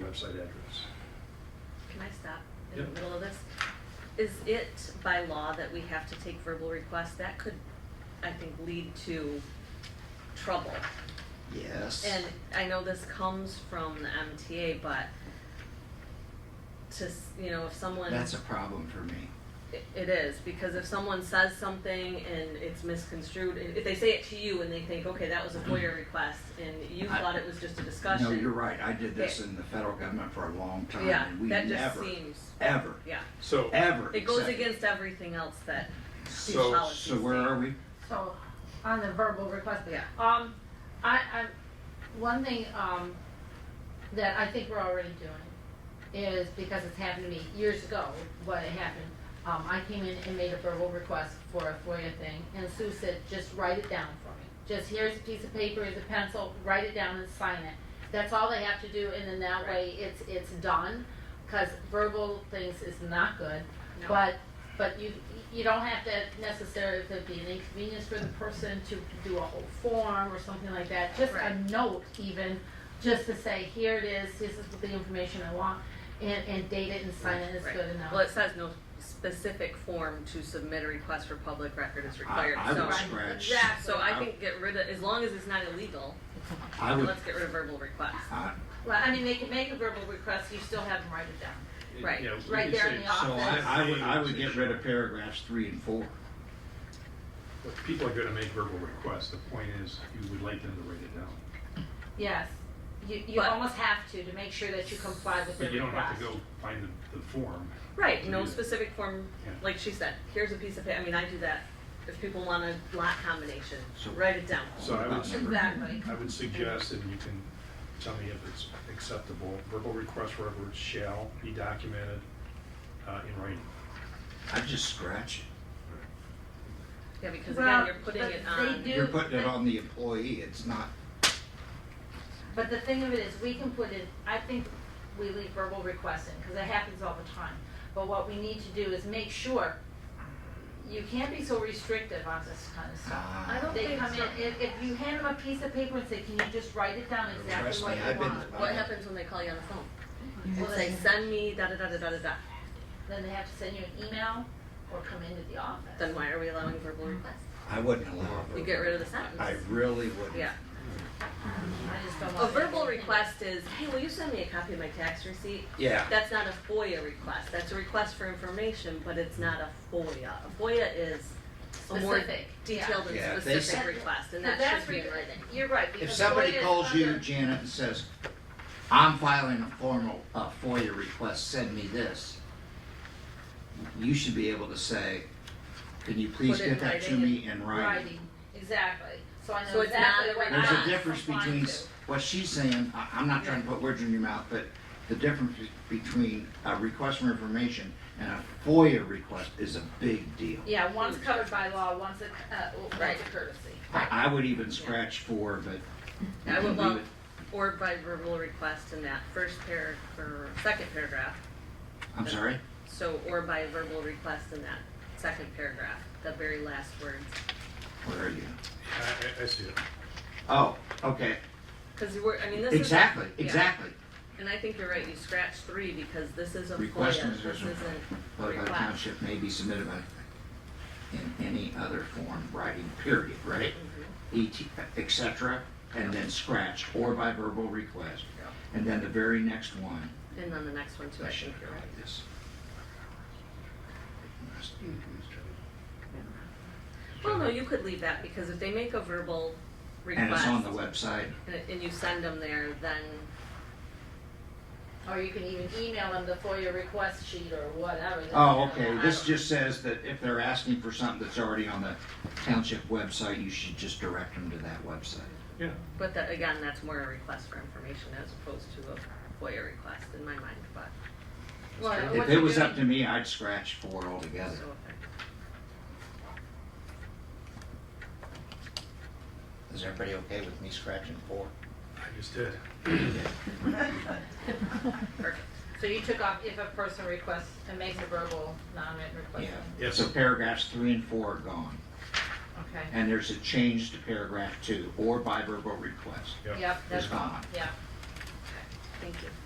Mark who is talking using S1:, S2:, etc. S1: website address.
S2: Can I stop in the
S1: Yep.
S2: middle of this? Is it by law that we have to take verbal requests? That could, I think, lead to trouble.
S3: Yes.
S2: And I know this comes from the MTA, but to, s- you know, if someone.
S3: That's a problem for me.
S2: It- It is, because if someone says something and it's misconstrued, and if they say it to you and they think, okay, that was a FOIA request, and you
S3: I-
S2: thought it was just a discussion.
S3: Mm. No, you're right. I did this
S2: Okay.
S3: in the federal government for a long time
S2: Yeah,
S3: and we
S2: that just
S3: never,
S2: seems,
S3: ever,
S2: yeah.
S4: So,
S3: ever.
S2: It goes
S3: accepted.
S2: against everything else that these
S4: So-
S2: policies
S3: So where
S2: say.
S3: are we?
S5: So, on the verbal request.
S2: Yeah.
S5: Um, I, I, one thing, um, that I think we're already doing is, because it's happened to me years ago, what had happened, um, I came in and made a verbal request for a FOIA thing, and Sue said, just write it down for me. Just here's a piece of paper, here's a pencil, write it down and sign it. That's all they have to do, and then that way it's, it's done, cause verbal things is not good.
S2: No.
S5: But, but you, you don't have to necessarily, if it'd be an inconvenience for the person to do a whole form or something like that, just a
S2: Right.
S5: note even, just to say, here it is, this is the information I want, and, and date it and sign it, it's
S2: Right.
S5: good enough.
S2: Well, it says no specific form to submit a request for public record is required,
S3: I
S2: so.
S3: would
S5: Right.
S3: scratch.
S5: Exactly.
S2: So I think get rid of, as long as it's not illegal,
S3: I would,
S2: let's get rid of verbal requests.
S3: I,
S5: Well, I mean, they can make a verbal request, you still have them write it down.
S2: Right.
S4: yeah, we
S5: Right
S4: could
S5: there in the
S4: say- so
S3: I,
S5: office.
S3: I would, I would get rid of paragraphs three and four.
S4: But People are gonna make verbal requests, the point is, you would like them to write it down.
S5: Yes, you, you
S2: But-
S5: almost have to, to make sure that you comply with the
S4: But you don't have
S5: request.
S4: to go find the, the form.
S2: Right, no
S4: Yeah.
S2: specific form,
S4: Yeah.
S2: like she said, here's a piece of, pa- I mean, I do that, if people want a lot combination,
S3: So-
S2: write it down.
S4: So I would,
S3: Exactly.
S5: Exactly.
S4: I would suggest, and you can tell me if it's acceptable, verbal requests for whatever shall be documented, uh, in writing.
S3: I'd just scratch
S2: Yeah, because
S5: Well,
S2: again, you're putting
S5: but
S2: it
S5: they
S2: on.
S3: it.
S5: do-
S3: You're putting it
S5: but-
S3: on the employee. It's not,
S5: But the thing of it is, we can put in, I think we leave verbal requests in, because it happens all the time. But what we need to do is make sure, you can't be so restrictive on this kind of stuff.
S3: ah.
S2: I don't
S5: They
S2: think
S5: come in,
S2: so.
S5: if, if you hand them a piece of paper and say, can you just write it down exactly
S3: Trust
S5: what
S3: me,
S5: you
S3: I've been-
S5: want?
S2: What happens when they call you on the phone?
S5: Well,
S2: It's like,
S5: then,
S2: send me da da da da da da da,
S5: then they have to send you an email or come into the office.
S2: then why are we allowing verbal requests?
S3: I wouldn't allow it.
S2: You get rid of the sentence.
S3: I really wouldn't.
S2: Yeah.
S5: I just don't
S2: A
S5: want.
S2: verbal
S5: that.
S2: request is, hey, will you send me a copy of my tax receipt?
S3: Yeah.
S2: That's not a FOIA request, that's a request for information, but it's not a FOIA. A FOIA is a more
S5: Specific, yeah.
S2: detailed
S3: Yeah,
S2: and
S3: if they
S2: specific
S5: sent-
S2: request, and
S5: Now,
S2: that
S5: that's
S2: should be in
S5: re-
S2: writing.
S5: You're right,
S3: If
S5: because.
S3: somebody
S5: FOIA is
S3: calls you,
S5: under-
S3: Janet, and says, I'm filing a formal, uh FOIA request, send me this, you should be able to say, can you please
S2: Put it in
S3: get that to
S2: writing
S3: me in writing?
S5: Writing, exactly, so I
S2: So
S5: know
S2: it's not
S5: exactly
S2: a
S5: what.
S3: There's
S2: Ah,
S3: a
S5: I'm
S3: difference
S5: applying
S3: between
S5: to.
S3: s- what she's saying, I, I'm not trying to put words in your mouth, but the difference be- between a request for information and a FOIA request is a big deal.
S5: Yeah, one's covered by law, one's a, uh,
S2: Right.
S5: one's a courtesy.
S3: I, I would even scratch four, but. you
S2: I
S3: can
S2: would
S3: leave
S2: love,
S3: it.
S2: or by verbal request in that first paragraph, or second paragraph,
S3: I'm sorry?
S2: so, or by verbal request in that second paragraph, the very last words.
S3: Where are you?
S4: I, I, I see it.
S3: Oh, okay,
S2: Because you were, I mean, this is. a-
S3: exactly,
S2: yeah.
S3: exactly.
S2: And I think you're right, you scratch three, because this is a
S3: Request
S2: FOIA,
S3: and
S2: this
S3: decision.
S2: isn't a
S3: Vote by the
S2: request.
S3: township may be submitted by, in any other form, writing, period, right?
S2: Mm-hmm.
S3: Et, et cetera, and then scratch, or by verbal request.
S2: Yeah.
S3: And then the very next one,
S2: And then the next one too,
S3: I
S2: I
S3: should
S2: think you're right.
S3: write this.
S2: Well, no, you could leave that, because if they make a verbal
S3: And it's
S2: request,
S3: on the website,
S2: and- and you send them there, then,
S5: Or you can even email them the FOIA request sheet or whatever.
S3: oh, okay,
S5: I
S3: this
S5: don't-
S3: just says that if they're asking for something that's already on the township website, you should just direct them to that website.
S4: Yeah,
S2: but that, again, that's more a request for information as opposed to a FOIA request in my mind, but.
S5: Well,
S4: If
S5: what
S3: If
S5: you're
S3: it was up to
S5: doing-
S3: me, I'd scratch four altogether.
S2: so if I-
S3: Is everybody okay with me scratching four?
S4: I just did.
S2: Perfect.
S5: So you took off if a person requests and makes a verbal, non-written request.
S3: Yeah.
S4: Yes.
S3: So paragraphs three and four are gone,
S5: Okay,
S3: and there's a change to paragraph two, or by verbal request
S4: Yeah.
S5: yep,
S3: is
S5: that's,
S3: gone.
S5: yeah.
S2: Thank you.